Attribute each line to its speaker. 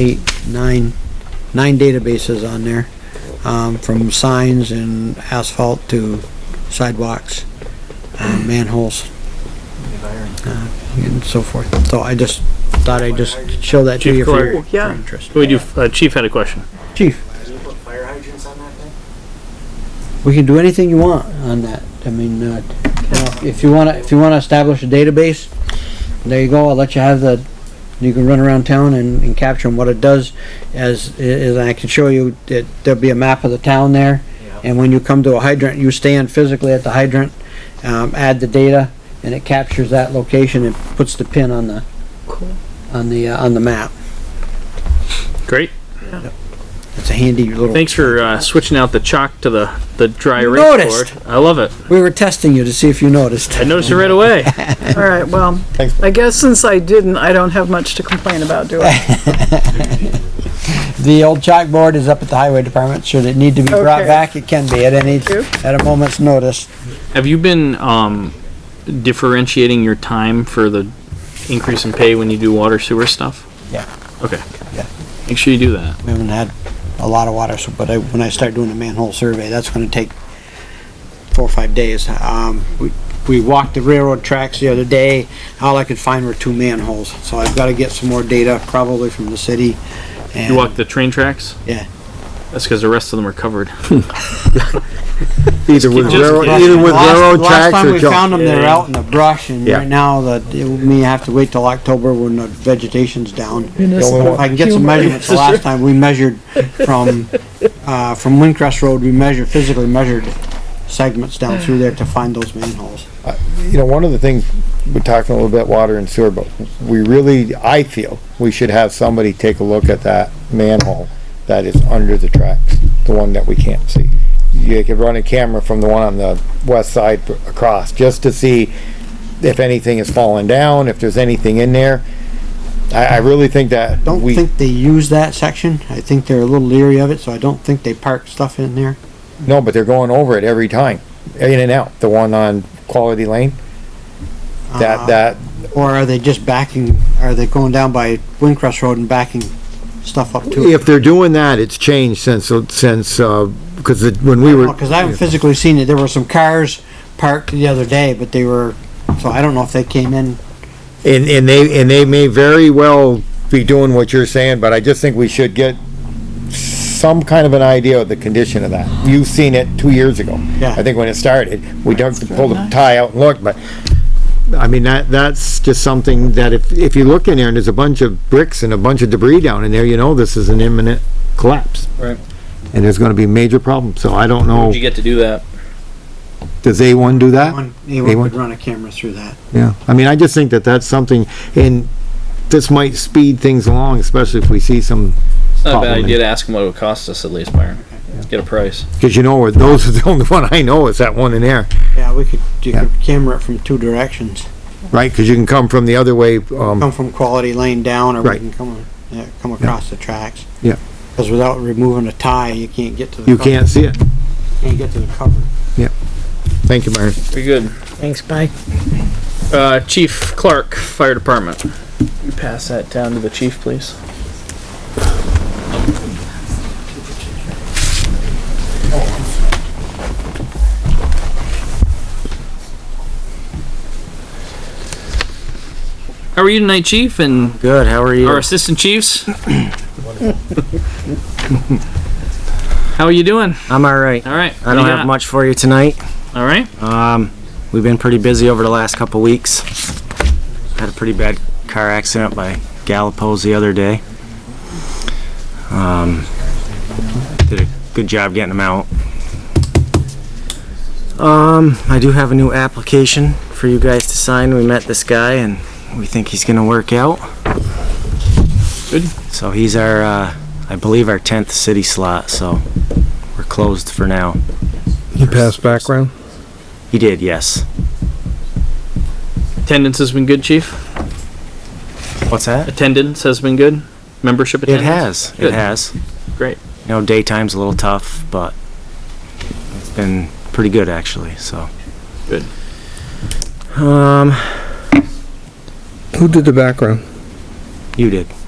Speaker 1: eight, nine, nine databases on there, um, from signs and asphalt to sidewalks, uh, manholes, and so forth. So I just thought I'd just show that to
Speaker 2: Chief
Speaker 1: you for your
Speaker 2: Clark.
Speaker 1: for
Speaker 3: Yeah.
Speaker 1: your interest.
Speaker 2: We do, uh, Chief had a question.
Speaker 1: Chief,
Speaker 4: Can you put fire hydrants on that thing?
Speaker 1: we can do anything you want on that. I mean, uh, you know, if you wanna, if you wanna establish a database, there you go, I'll let you have the, you can run around town and, and capture them. What it does as, is I can show you, that there'll be a map of the town there.
Speaker 4: Yeah.
Speaker 1: And when you come to a hydrant, you stand physically at the hydrant, um, add the data, and it captures that location and puts the pin on the,
Speaker 3: Cool.
Speaker 1: on the, uh, on the map.
Speaker 2: Great.
Speaker 1: It's a handy little.
Speaker 2: Thanks for, uh, switching out the chalk to the, the dry
Speaker 1: You
Speaker 2: erase
Speaker 1: noticed.
Speaker 2: board. I love it.
Speaker 1: We were testing you to see if you noticed.
Speaker 2: I noticed it right away.
Speaker 3: All right, well, I guess since I didn't, I don't have much to complain about, do I?
Speaker 1: The old chalkboard is up at the highway department. Should it need to be brought
Speaker 3: Okay.
Speaker 1: back, it can be at any,
Speaker 3: Thank you.
Speaker 1: at a moment's notice.
Speaker 2: Have you been, um, differentiating your time for the increase in pay when you do water sewer stuff?
Speaker 1: Yeah.
Speaker 2: Okay.
Speaker 1: Yeah.
Speaker 2: Make sure you do that.
Speaker 1: We haven't had a lot of water, so, but I, when I start doing the manhole survey, that's gonna take four or five days. Um, we, we walked the railroad tracks the other day, all I could find were two manholes, so I've gotta get some more data, probably from the city.
Speaker 2: You
Speaker 1: and-
Speaker 2: walk the train tracks?
Speaker 1: Yeah.
Speaker 2: That's because the rest of them are covered.
Speaker 5: Either with
Speaker 2: Just kidding.
Speaker 5: railroad,
Speaker 2: Just
Speaker 5: either with
Speaker 1: Last-
Speaker 5: railroad
Speaker 1: Last
Speaker 5: tracks
Speaker 1: time
Speaker 5: or
Speaker 1: we found
Speaker 5: junk.
Speaker 1: them, they're
Speaker 2: Yeah.
Speaker 1: out in the brush, and
Speaker 5: Yeah.
Speaker 1: right now, that, it may have to wait till October when the vegetation's down.
Speaker 3: Municipal
Speaker 1: If I can get some
Speaker 3: humor.
Speaker 1: measurements, the last time we measured from, uh, from Windcrest Road, we measured, physically measured segments down through there to find those manholes.
Speaker 5: You know, one of the things, we're talking a little bit water and sewer, but we really, I feel, we should have somebody take a look at that manhole that is under the tracks, the one that we can't see. You could run a camera from the one on the west side across, just to see if anything is falling down, if there's anything in there. I, I really think that
Speaker 1: Don't
Speaker 5: we,
Speaker 1: think they use that section. I think they're a little leery of it, so I don't think they park stuff in there.
Speaker 5: no, but they're going over it every time, in and out, the one on Quality Lane.
Speaker 1: Uh,
Speaker 5: That, that,
Speaker 1: Or are they just backing, are they going down by Windcrest Road and backing stuff up to it?
Speaker 5: If they're doing that, it's changed since, since, uh, because when we were,
Speaker 1: Because I haven't physically seen it. There were some cars parked the other day, but they were, so I don't know if they came in.
Speaker 5: and, and they, and they may very well be doing what you're saying, but I just think we should get some kind of an idea of the condition of that. You've seen it two years ago.
Speaker 1: Yeah.
Speaker 5: I think when it started, we dug, pulled the tie out and looked, but, I mean, that, that's just something that if, if you look in there and there's a bunch of bricks and a bunch of debris down in there, you know this is an imminent collapse.
Speaker 2: Right.
Speaker 5: And there's gonna be major problems, so I don't know,
Speaker 2: get to do that?
Speaker 5: does A1 do that?
Speaker 1: One- Anyone
Speaker 5: Anyone?
Speaker 1: would run a camera through that.
Speaker 5: Yeah, I mean, I just think that that's something, and this might speed things along, especially if we see some.
Speaker 6: It's not a bad
Speaker 5: problem.
Speaker 6: idea to ask them what it would cost us at least, Byron. Get a price.
Speaker 5: Cause you know, where those are the only one I know is that one in there,
Speaker 1: Yeah, we could, you
Speaker 5: Yeah.
Speaker 1: could camera it from two directions.
Speaker 5: right? Cause you can come from the other way, um,
Speaker 1: Come from Quality Lane down, or we
Speaker 5: Right.
Speaker 1: can come, yeah, come across the tracks.
Speaker 5: Yeah.
Speaker 1: Because without removing a tie, you can't get to the.
Speaker 5: you
Speaker 1: cover.
Speaker 5: can't see it.
Speaker 1: Can't get to the cover.
Speaker 5: Thank you, Myron.
Speaker 6: Very good.
Speaker 3: Thanks, Mike.
Speaker 6: Uh, Chief Clark, Fire Department. You pass that down to the chief, please.
Speaker 2: How are you tonight, Chief, and
Speaker 1: Good, how are you?
Speaker 2: our assistant chiefs? How are you doing?
Speaker 7: I'm all right.
Speaker 2: All right.
Speaker 7: I
Speaker 2: what do
Speaker 7: don't
Speaker 2: you
Speaker 7: have
Speaker 2: got?
Speaker 7: much for you tonight.
Speaker 2: All right.
Speaker 7: Um, we've been pretty busy over the last couple weeks. Had a pretty bad car accident by Galapos the other day. Um, did a good job getting them out. Um, I do have a new application for you guys to sign. We met this guy and we think he's gonna work out.
Speaker 2: Good.
Speaker 7: So he's our, uh, I believe our tenth city slot, so we're closed for now.
Speaker 5: You passed background?
Speaker 7: He did, yes.
Speaker 2: Attendance has been good, Chief.
Speaker 7: What's that?
Speaker 2: Attendance has been good. Membership
Speaker 7: It
Speaker 2: attendance.
Speaker 7: has.
Speaker 2: Good.
Speaker 7: It has.
Speaker 2: Great.
Speaker 7: You know, daytime's a little tough, but it's been pretty good actually. So.
Speaker 2: Good.
Speaker 7: Um,
Speaker 5: Who did the background?
Speaker 7: you did.